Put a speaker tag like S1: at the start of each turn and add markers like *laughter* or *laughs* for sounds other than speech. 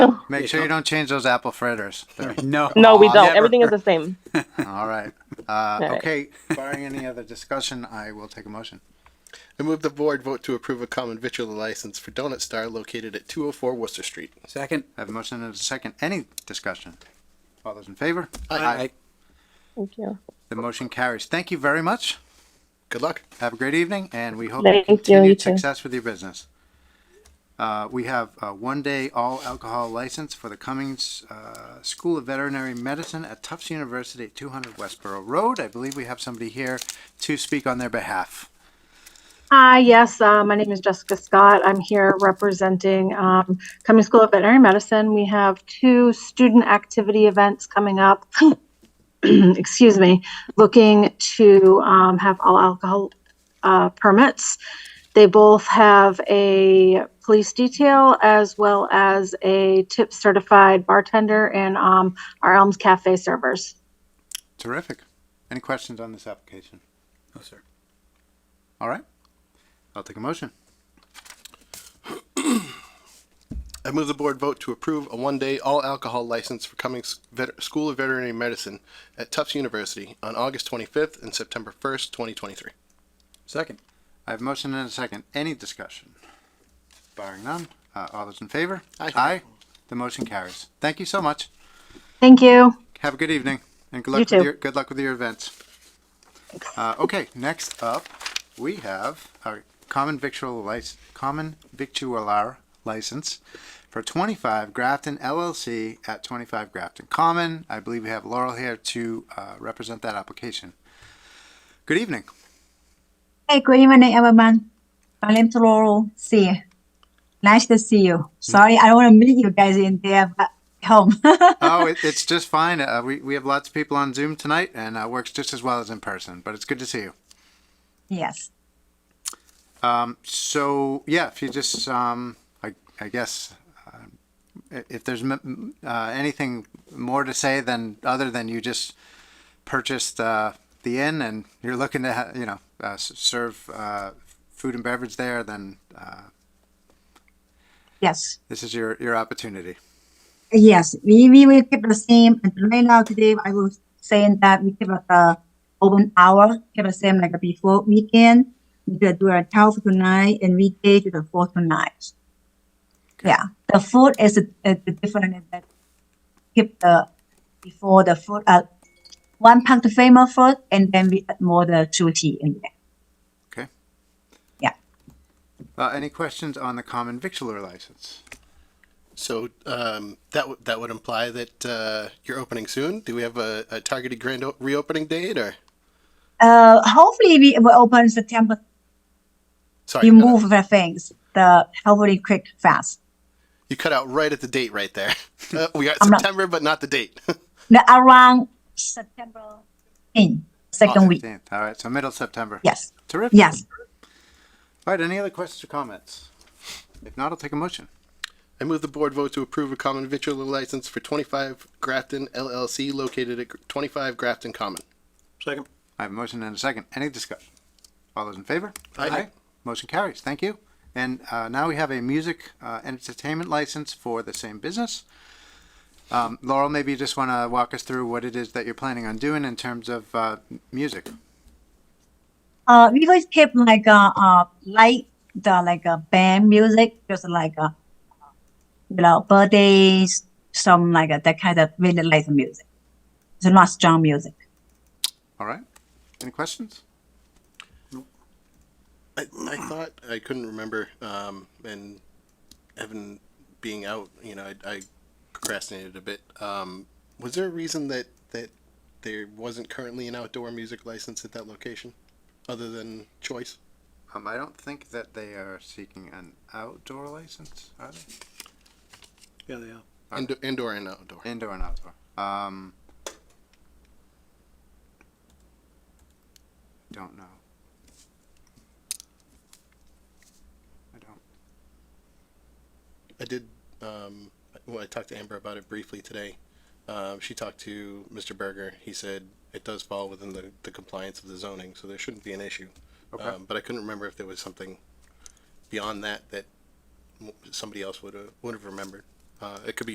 S1: Make sure you don't change those apple fritters. *laughs* They're-
S2: No.
S3: No, we
S2: I'll
S3: don't.
S2: never-
S3: Everything is the same.
S1: All *laughs* right. Uh,
S3: right.
S1: okay, *laughs* barring any other discussion, I will take a motion.
S4: I move the board vote to approve a common vitriol license for Donut Star located at 204 Worcester Street.
S2: Second.
S1: I have a motion and a second. Any discussion? All those in favor?
S2: Aye.
S3: Thank you.
S1: The motion carries. Thank you very much.
S4: Good luck.
S1: Have a great evening, and we hope
S3: Thank you, you
S1: continued
S3: too.
S1: success with your business. Uh, we have a one-day all alcohol license for the Cummings uh, School of Veterinary Medicine at Tufts University at 200 Westboro Road. I believe we have somebody here to speak on their behalf.
S5: Hi, yes, uh, my name is Jessica Scott. I'm here representing um, Cummings School of Veterinary Medicine. We have two student activity events coming up. *clears throat* Excuse me, looking to um, have all alcohol uh, permits. They both have a police detail as well as a tip certified bartender and um, our Elms Cafe servers.
S1: Terrific. Any questions on this application?
S2: No, sir.
S1: All right. I'll take a motion.
S4: I move the board vote to approve a one-day all-alcohol license for Cummings Vet- School of Veterinary Medicine at Tufts University on August 25th and September 1st, 2023.
S2: Second.
S1: I have a motion and a second. Any discussion? Barring none, uh, all those in favor?
S4: Aye.
S1: Aye. The motion carries. Thank you so much.
S5: Thank you.
S1: Have a good evening and good
S5: You
S1: luck with
S5: too.
S1: your good luck with your events. Uh, okay, next up we have a common victual license, common victualler license for 25 Grafton LLC at 25 Grafton Common. I believe we have Laurel here to uh, represent that application. Good evening.
S6: Hey, good evening, everyone. My name's Laurel. See you. Nice to see you. Sorry, I don't want to meet you guys in there, but home. *laughs*
S1: oh, it, it's just fine. Uh, we, we have lots of people on Zoom tonight, and uh, works just as well as in person. But it's good to see you.
S6: yes.
S1: So yeah, if you just, um, I, I guess, um, i- if there's m- m- uh, anything more to say than other than you just purchased uh, the inn and you're looking to, ha- you know, uh, s- serve uh, food and beverage there, then uh,
S6: Yes.
S1: this is your your opportunity.
S6: Yes. We, we will keep the same. And right now, today, I was saying that we keep it the open hour, keep the same like before weekend. We do do a 12 to 9 and weekday to the 4 to 9. Yeah. The food is uh, different. That keep the before the food, uh, one pound of famous food, and then we add more the sushi in there.
S1: Uh, any questions on the common victualler license?
S4: So um, that w- that would imply that uh, you're opening soon. Do we have a, a targeted grand o- reopening date or?
S6: Uh, hopefully we will open September.
S4: Sorry,
S6: We
S4: you cut out-
S6: move the things, the hopefully quick, fast.
S4: you cut out right at the date right
S6: *laughs*
S4: there. Uh, we got
S6: I'm not-
S4: September, but not the date. *laughs*
S6: The around September in second week.
S1: 15th. All right, so middle September.
S6: Yes,
S1: Terrific.
S6: yes.
S1: All right, any other questions or comments? If not, I'll take a motion.
S4: I move the board vote to approve a common vitriol license for 25 Grafton LLC located at 25 Grafton Common.
S2: Second.
S1: I have a motion and a second. Any discussion? All those in favor?
S4: Aye.
S1: Motion carries. Thank you. And uh, now we have a music uh, entertainment license for the same business. Um, Laurel, maybe you just want to walk us through what it is that you're planning on doing in terms of uh, music.
S6: Uh, we always keep like uh, uh like the like uh, band music, just like uh, you know birthdays, some like uh, that kind of really light music. It's not strong music.
S1: All right. Any questions?
S4: I, I thought I couldn't remember, um, and Evan being out, you know, I, I procrastinated a bit. Um, was there a reason that that there wasn't currently an outdoor music license at that location, other than choice?
S1: Um, I don't think that they are seeking an outdoor license, are they?
S2: Yeah, they are.
S4: Indo- indoor and outdoor.
S1: Indoor and outdoor. Um, don't know. I don't.
S4: I did. Um, well, I talked to Amber about it briefly today. Um, she talked to Mr. Berger. He said it does fall within the, the compliance of the zoning, so there shouldn't be an issue.
S1: Okay.
S4: Um, but I couldn't remember if there was something beyond that that m- somebody else would have would have remembered. Uh, it could be